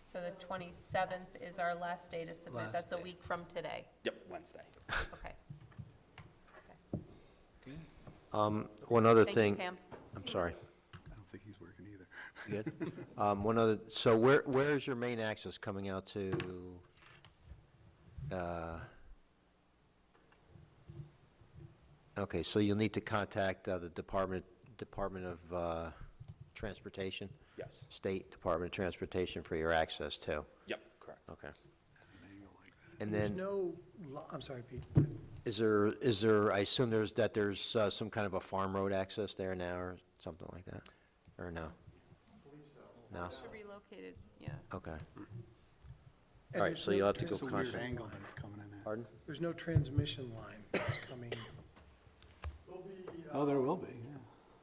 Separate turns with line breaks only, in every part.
So the twenty-seventh is our last day to submit.
Last
That's a
day.
week from today.
Yep, Wednesday.
Okay.
Um, One other
Thank you,
thing.
Pam.
I'm sorry.
I don't think he's working either.
You Good. Um, One other, so where, where is your main access coming out to? uh, Okay, so you'll need to contact uh, the Department, Department of uh, Transportation,
Yes.
State Department of Transportation for your access too.
Yep, correct.
Okay.
An angle like that.
And
There's
then,
no, lo- I'm sorry, Pete.
is there, is there, I assume there's, that there's uh, some kind of a farm road access there now or something like that? Or no? No?
Should relocated, yeah.
Okay.
And
All right,
there's
so
no
you'll have to
trans-
go
It's a weird
constant.
angle that it's coming in at.
Pardon?
There's no transmission line that's coming.
There'll be,
Oh,
uh,
there will be, yeah.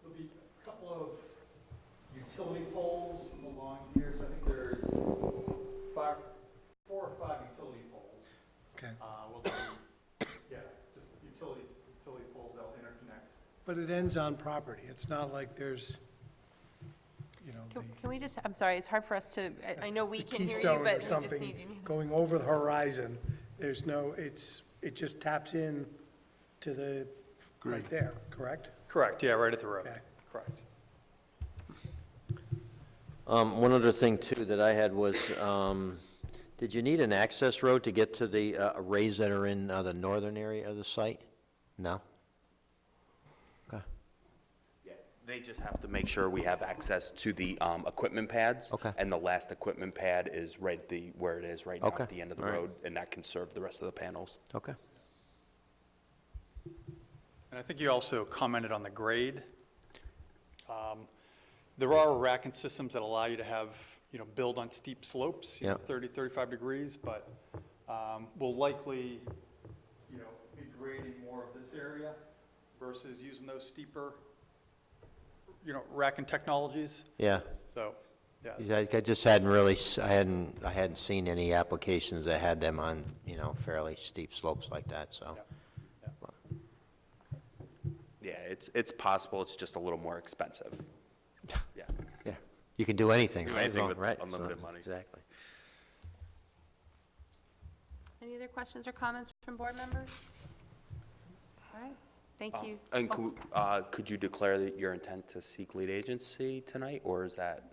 there'll be a couple of utility poles along here, so I think there's five, four or five utility poles.
Okay.
Uh, will be, yeah, just utility, utility poles that'll interconnect.
But it ends on property. It's not like there's, you know,
Can
the
can we just, I'm sorry, it's hard for us to, I- I know we
the
can hear you,
keystone
but
or
we just need
something
you.
going over the horizon. There's no, it's, it just taps in to the, right
Great.
there, correct?
Correct, yeah, right at the road.
Okay.
Correct.
Um, one other thing too that I had was, um, did you need an access road to get to the uh, arrays that are in uh, the northern area of the site? No? Okay,
Yeah, They just have to make sure we have access to the um, equipment pads.
Okay.
And the last equipment pad is right the, where it is right now,
Okay,
at the end of the
all right.
road, and that can serve the rest of the panels.
okay.
And I think you also commented on the grade. Um, There are racking systems that allow you to have, you know, build on steep slopes, you know,
Yeah.
30, 35 degrees, but um, we'll likely, you know, be grading more of this area versus using those steeper, you know, racking technologies.
Yeah,
So, yeah,
I, I just hadn't really, s- I hadn't, I hadn't seen any applications that had them on, you know, fairly steep slopes like that, so.
Yeah.
Yeah, it's, it's possible, it's just a little more expensive. Yeah.
Yeah, you can do anything,
Do
right?
anything
Well,
with
right, so-
unlimited money.
Exactly.
Any other questions or comments from board members? All right, thank
Um,
you.
And
Oh,
cou- uh, could you declare that your intent to seek lead agency tonight, or is that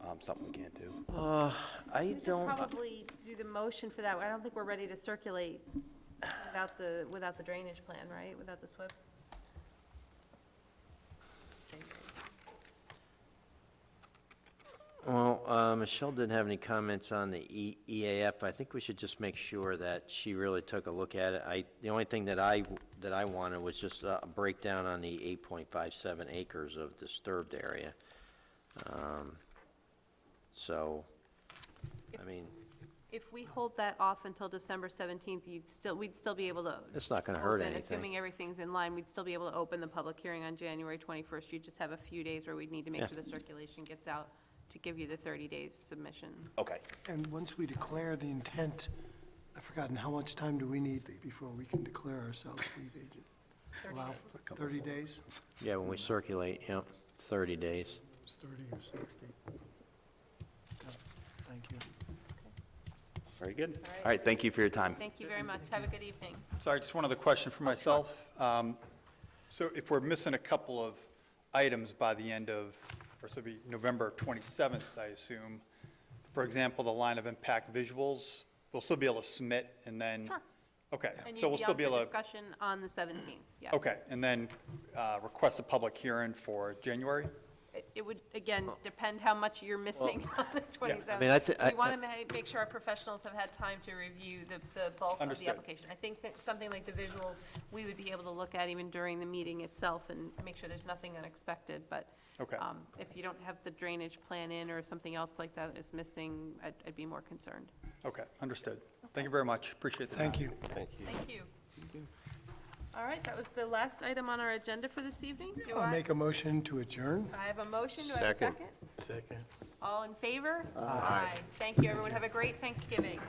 um, something we can't do?
Uh,
Oh, We
I
could
don't,
probably do the motion for that. I don't think we're ready to circulate without the, without the drainage plan, right? Without the SWIP?
Well, uh, Michelle didn't have any comments on the E- EAF. I think we should just make sure that she really took a look at it. I, the only thing that I, that I wanted was just uh, a breakdown on the 8.57 acres of disturbed area. Um, So, I mean,
If we hold that off until December 17th, you'd still, we'd still be able to.
It's not gonna hurt
open,
anything.
Assuming everything's in line, we'd still be able to open the public hearing on January 21st. You just have a few days where we'd need to make
Yeah.
sure the circulation gets out to give you the 30 days submission.
Okay,
And once we declare the intent, I've forgotten, how much time do we need before we can declare ourselves lead agent? Allow for 30 days?
yeah, when we circulate, you know, 30 days.
It's 30 or 60. Okay, Thank you.
very good.
right.
All right, thank you for your time.
Thank you very much. Have a good evening.
sorry, just one other question for myself. Um, So if we're missing a couple of items by the end of, or so it'd be November 27th, I assume, for example, the line of impact visuals, we'll still be able to submit and then?
Sure.
Okay,
And you'd
so we'll
be
still
up
be
for
able to?
discussion on the 17th, yeah.
Okay, and then uh, request a public hearing for January?
It- It would, again, depend how much you're missing on the
I mean, I
27th.
thi- I-
We want to make sure our professionals have had time to review the the bulk of the
Understood.
application. I think that something like the visuals, we would be able to look at even during the meeting itself and make sure there's nothing unexpected, but
Okay.
um, if you don't have the drainage plan in or something else like that is missing, I'd I'd be more concerned.
Okay, understood. Thank you very much, appreciate the time.
Thank you.
Thank you. All right, that was the last item on our agenda for this evening. Do
I'll
I
make a motion to adjourn.
I have a motion, do I have a
Second.
second?
Second.
All in favor? Aye. Thank you, everyone. Have a great Thanksgiving.